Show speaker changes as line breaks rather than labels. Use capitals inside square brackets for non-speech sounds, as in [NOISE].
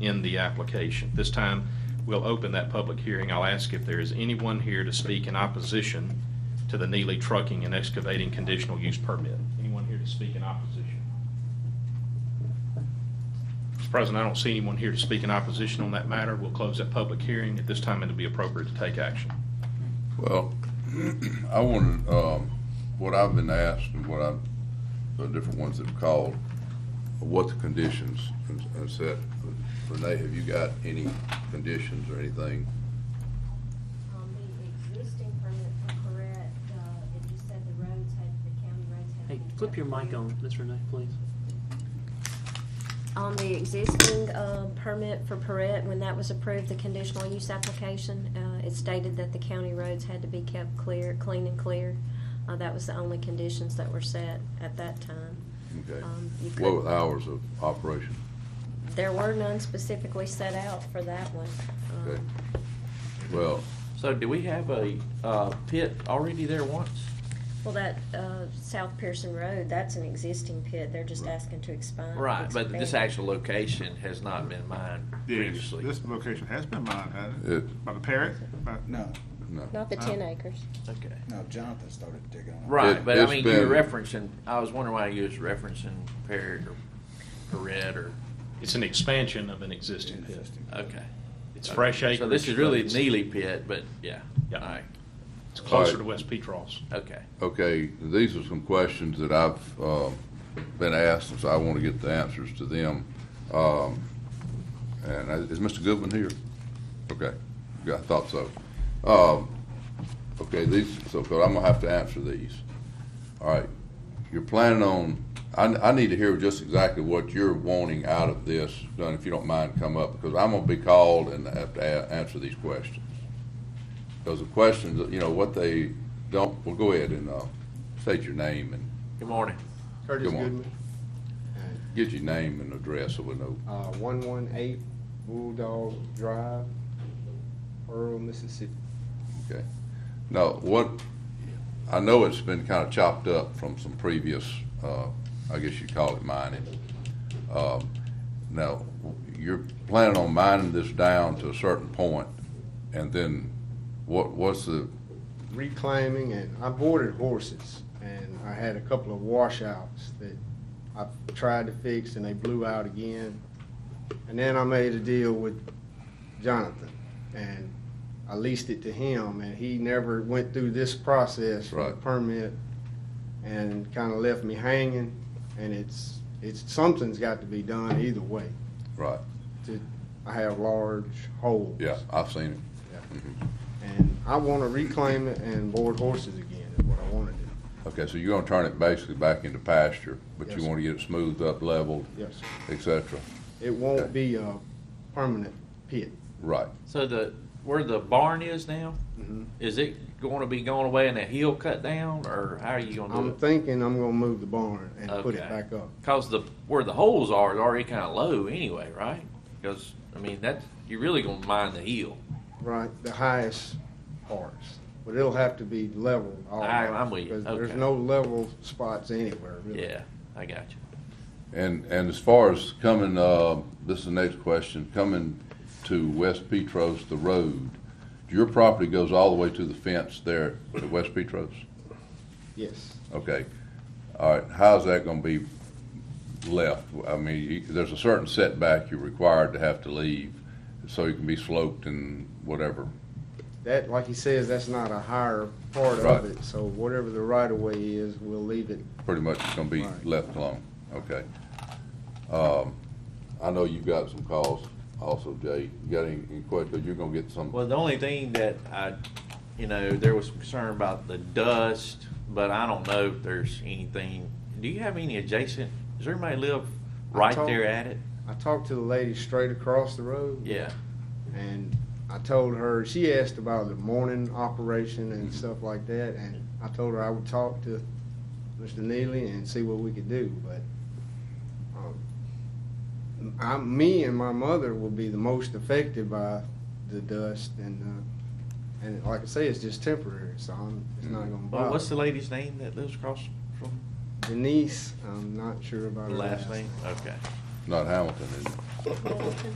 in the application. This time, we'll open that public hearing. I'll ask if there is anyone here to speak in opposition to the Neely Trucking and Excavating Conditional Use Permit. Anyone here to speak in opposition? Mr. President, I don't see anyone here to speak in opposition on that matter. We'll close that public hearing. At this time, it'll be appropriate to take action.
Well, [CLEARS THROAT] I wanted, um, what I've been asked and what I've, the different ones that have called, what the conditions and and set. Renee, have you got any conditions or anything?
On Um, the existing permit for Correct, uh, it just said the roads had, the county roads had.
Hey,
been
flip
cut
your mic
clear.
on, Ms. Renee, please.
On the existing, uh, permit for Correct, when that was approved, the conditional use application, uh, it stated that the county roads had to be kept clear, clean and clear. Uh, that was the only conditions that were set at that time.
Okay.
Um, you
What
could,
with hours of operation?
there were none specifically set out for that one. Um,
Okay. Well,
So do we have a, uh, pit already there once?
Well, that, uh, South Pearson Road, that's an existing pit, they're just
Right.
asking to expand.
Right, but this
expand.
actual location has not been mined
Yes,
previously.
this location has been mined, hasn't it?
It-
By the parrot? By-
No,
no.
Not the
Oh.
Uh,
ten acres.
Okay.
no, Jonathan started digging on it.
Right,
It-
but I
it's
mean, you're
been-
referencing, I was wondering why you was referencing Perry or Perret or,
It's an expansion of an existing pit.
Interesting.
okay.
It's
Okay.
fresh acreage.
So this is really
but it's-
Neely pit, but yeah.
Yeah.
All right,
It's closer to West Petros.
okay.
Okay, these are some questions that I've uh, been asked, and so I want to get the answers to them. Um, And I- is Mr. Goodwin here? Okay, yeah, I thought so. Um, Okay, these, so but I'm gonna have to answer these. All right, you're planning on, I, I need to hear just exactly what you're wanting out of this, Done, if you don't mind, come up, because I'm gonna be called and have to a- answer these questions. Those are questions, that, you know, what they don't, well, go ahead and, uh, state your name and
Good morning.
Curtis
Come on.
Goodman,
get your name and address so we know.
uh, one one eight Bulldog Drive, Pearl, Mississippi.
Okay. Now, what, I know it's been kind of chopped up from some previous, uh, I guess you'd call it mining. Um, Now, you're planning on mining this down to a certain point, and then what, what's the,
Reclaiming and I boarded horses and I had a couple of washouts that I tried to fix and they blew out again. And then I made a deal with Jonathan and I leased it to him and he never went through this process for the
Right.
permit and kind of left me hanging and it's, it's, something's got to be done either way.
right,
I have large holes.
yeah, I've seen it.
And I want to reclaim it and board horses again is what I want to do.
Okay, so you're gonna turn it basically back into pasture, but
Yes,
you
sir.
wanna get it smoothed up, leveled,
Yes, sir.
et cetera.
It
Okay.
won't be a permanent pit.
Right,
So the, where the barn is now,
Mm-hmm.
is it going to be going away and a hill cut down or how are you going to
Um,
do
I'm
it?
thinking I'm going to move the barn and put it
Okay.
back up.
Cause the, where the holes are is already kinda low anyway, right? Cause, I mean, that's, you're really gonna mine the heel.
Right, the highest parts. But it'll have to be leveled all the way.
I- I'm with you.
because There's
Okay.
no level spots anywhere, really.
Yeah, I got you.
and, and as far as coming, uh, this is the next question, coming to West Petros, the road, your property goes all the way to the fence there at West Petros?
Yes.
Okay, all right, how's that gonna be left? I mean, you- there's a certain setback you're required to have to leave, so you can be sloped and whatever.
That, like he says, that's not a higher part
Right.
of it. So whatever the right of way is, we'll leave it.
pretty much it's gonna be
Right.
left alone, okay. Um, I know you've got some calls also, Jay, you got any, any questions, you're gonna get some,
Well, the only thing that I, you know, there was concern about the dust, but I don't know if there's anything. Do you have any adjacent, does everybody live right
told-
there at it?
I talked to the lady straight across the road.
Yeah,
And I told her, she asked about the morning operation and
Mm-hmm.
stuff like that, and I told her I would talk to Mr. Neely and see what we could do, but, um, I, me and my mother will be the most affected by the dust and, uh, and like I say, it's just temporary, so I'm, it's not gonna
Mm-hmm. well, what's the
bother.
lady's name that lives across from
Denise, I'm not sure
the
about her
last name? Okay.
not Hamilton, is it?
Middleton.